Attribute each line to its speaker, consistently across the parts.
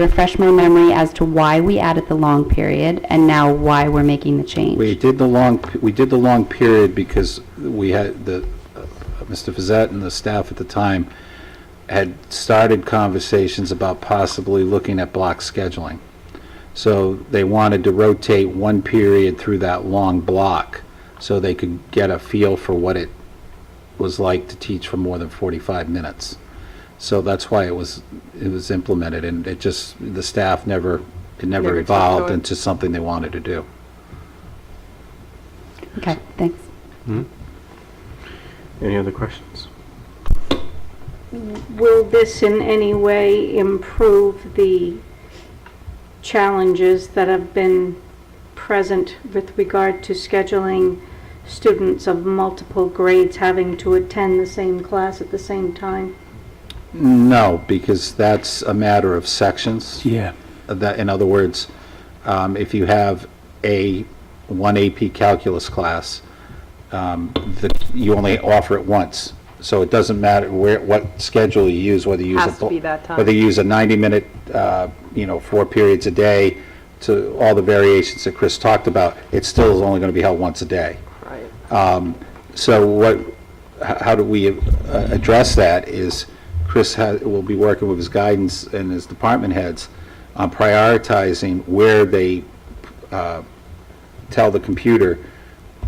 Speaker 1: refresh my memory as to why we added the long period and now why we're making the change.
Speaker 2: We did the long, we did the long period because we had, the, uh, Mr. Fazette and the staff at the time had started conversations about possibly looking at block scheduling. So they wanted to rotate one period through that long block so they could get a feel for what it was like to teach for more than 45 minutes. So that's why it was, it was implemented, and it just, the staff never, it never
Speaker 3: Never took to
Speaker 2: evolved
Speaker 3: it.
Speaker 2: into something they wanted to do.
Speaker 1: Okay, thanks.
Speaker 4: Any other questions?
Speaker 3: Will this in any way improve the challenges that have been present with regard to scheduling students of multiple grades having to attend the same class at the same time?
Speaker 2: No, because that's a matter of sections.
Speaker 4: Yeah.
Speaker 2: That, in other words, um, if you have a, one AP calculus class, um, the, you only offer it once. So it doesn't matter where, what schedule you use, whether you use. a
Speaker 5: Has to
Speaker 2: bu-
Speaker 5: be that time.
Speaker 2: Whether you use a 90-minute, uh, you know, four periods a day, to all the variations that Chris talked about, it still is only going to be held once a day.
Speaker 5: Right.
Speaker 2: So what, h- how do we uh, address that is Chris ha- will be working with his guidance and his department heads on prioritizing where they uh, tell the computer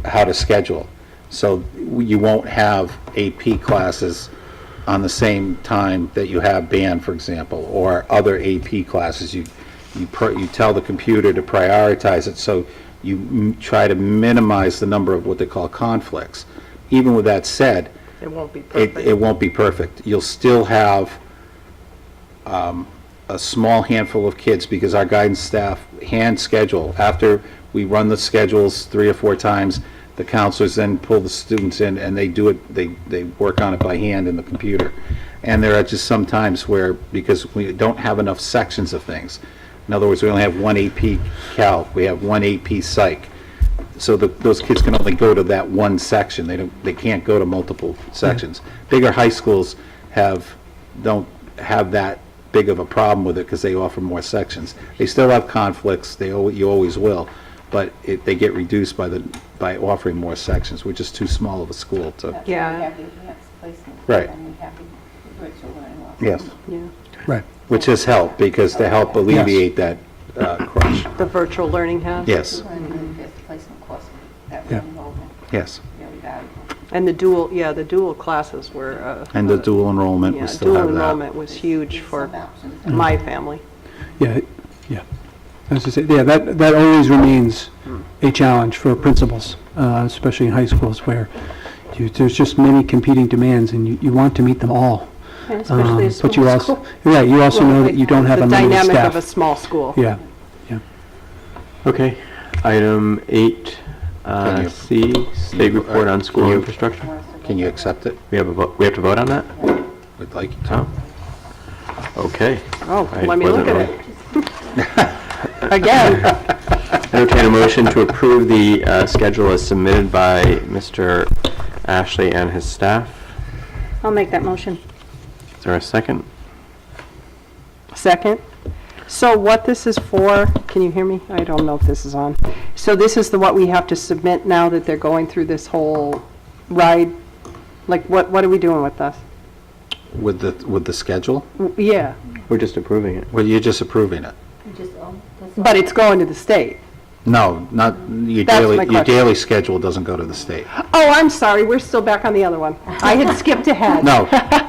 Speaker 2: how to schedule. So you won't have AP classes on the same time that you have band, for example, or other AP classes. You, you, pr- you tell the computer to prioritize it, so you m- try to minimize the number of what they call conflicts. Even with that said,
Speaker 5: It won't be
Speaker 2: it,
Speaker 5: perfect.
Speaker 2: it won't be perfect. You'll still have um, a small handful of kids because our guidance staff hand schedule. After we run the schedules three or four times, the counselors then pull the students in and they do it, they, they work on it by hand in the computer. And there are just some times where, because we don't have enough sections of things. In other words, we only have one AP Calc, we have one AP Psych. So the, those kids can only go to that one section, they don't, they can't go to multiple sections. Bigger high schools have, don't have that big of a problem with it, because they offer more sections. They still have conflicts, they, al- you always will, but it, they get reduced by the, by offering more sections, which is too small of a school to.
Speaker 5: Yeah.
Speaker 6: We have the enhanced placement.
Speaker 2: Right.
Speaker 6: And we have the virtual learning loss.
Speaker 2: Yes.
Speaker 7: Right.
Speaker 2: Which has helped, because to help alleviate that uh, crush.
Speaker 5: The virtual learning has?
Speaker 2: Yes,
Speaker 6: We're gonna do the fifth placement course that we
Speaker 7: Yeah.
Speaker 6: enrolled in,
Speaker 2: yes.
Speaker 6: very valuable.
Speaker 5: And the dual, yeah, the dual classes were. uh,
Speaker 2: And the dual enrollment,
Speaker 5: Yeah,
Speaker 2: we still have
Speaker 5: dual
Speaker 2: that.
Speaker 5: enrollment was huge for
Speaker 6: Some options.
Speaker 5: my family.
Speaker 7: Yeah, yeah. I was just saying, yeah, that, that always remains a challenge for principals, uh, especially in high schools where you, there's just many competing demands and you, you want to meet them all.
Speaker 3: And especially
Speaker 7: Um,
Speaker 3: a
Speaker 7: but you
Speaker 3: small
Speaker 7: also
Speaker 3: school.
Speaker 7: Yeah, you also know that you don't have a limited
Speaker 5: The dynamic of a
Speaker 7: staff.
Speaker 5: small school.
Speaker 7: Yeah,
Speaker 4: Okay. Item eight, uh,
Speaker 2: Can you-
Speaker 4: C, state
Speaker 2: you- uh,
Speaker 4: report on school
Speaker 2: you-
Speaker 4: infrastructure.
Speaker 2: Can you accept it?
Speaker 4: We have a, vo- we have to vote on that?
Speaker 2: Would like you to.
Speaker 4: Oh. Okay.
Speaker 5: Oh,
Speaker 4: I
Speaker 5: let me look
Speaker 4: wasn't
Speaker 5: at
Speaker 4: wrong.
Speaker 5: it. Again.
Speaker 4: Entertain a motion to approve the uh, schedule as submitted by Mr. Ashley and his staff.
Speaker 3: I'll make that motion.
Speaker 4: Is there a second?
Speaker 5: Second. So what this is for, can you hear me? I don't know if this is on. So this is the, what we have to submit now that they're going through this whole ride? Like, what, what are we doing with this?
Speaker 2: With the, with the schedule?
Speaker 5: W- Yeah,
Speaker 4: We're just approving it.
Speaker 2: Well, you're just approving it.
Speaker 6: We just, own- that's
Speaker 5: but it's going to the state.
Speaker 2: No, not, your
Speaker 5: That's
Speaker 2: daily,
Speaker 5: my
Speaker 2: your
Speaker 5: question.
Speaker 2: daily schedule doesn't go to the state.
Speaker 5: Oh, I'm sorry, we're still back on the other one. I had skipped ahead.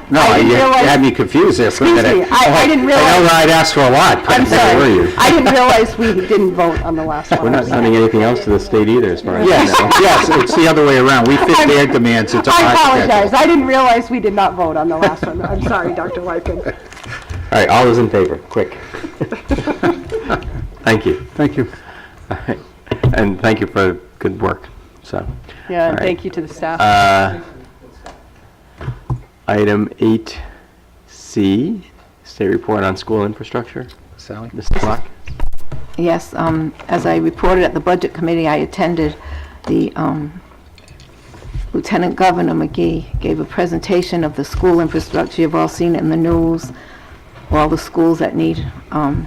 Speaker 2: No, no,
Speaker 5: I didn't
Speaker 2: you
Speaker 5: realize-
Speaker 2: had me confused there for a
Speaker 5: Excuse
Speaker 2: minute. Oh,
Speaker 5: me, I- I didn't
Speaker 2: I know
Speaker 5: realize-
Speaker 2: I'd asked for a lot, but
Speaker 5: I'm
Speaker 2: where were
Speaker 5: sorry.
Speaker 2: you?
Speaker 5: I didn't realize we didn't vote on the last one.
Speaker 4: We're not sending anything else to the state either, as far as I
Speaker 2: Yes,
Speaker 4: know.
Speaker 2: yes, it's the other way around. We fit their demands into our
Speaker 5: I
Speaker 2: schedule.
Speaker 5: apologize, I didn't realize we did not vote on the last one. I'm sorry, Dr. Wyken.
Speaker 4: All right, all those in favor, quick. Thank you.
Speaker 7: thank you.
Speaker 4: All right. And thank you for good work, so.
Speaker 5: Yeah,
Speaker 4: All
Speaker 5: and
Speaker 4: right.
Speaker 5: thank you to the staff.
Speaker 4: Uh, Item 8C, State Report on School Infrastructure.
Speaker 2: Sally?
Speaker 4: Mrs. Black?
Speaker 6: Yes, um, as I reported at the Budget Committee, I attended the, um, Lieutenant Governor McGee gave a presentation of the school infrastructure. You've all seen it in the news. all the schools that need um,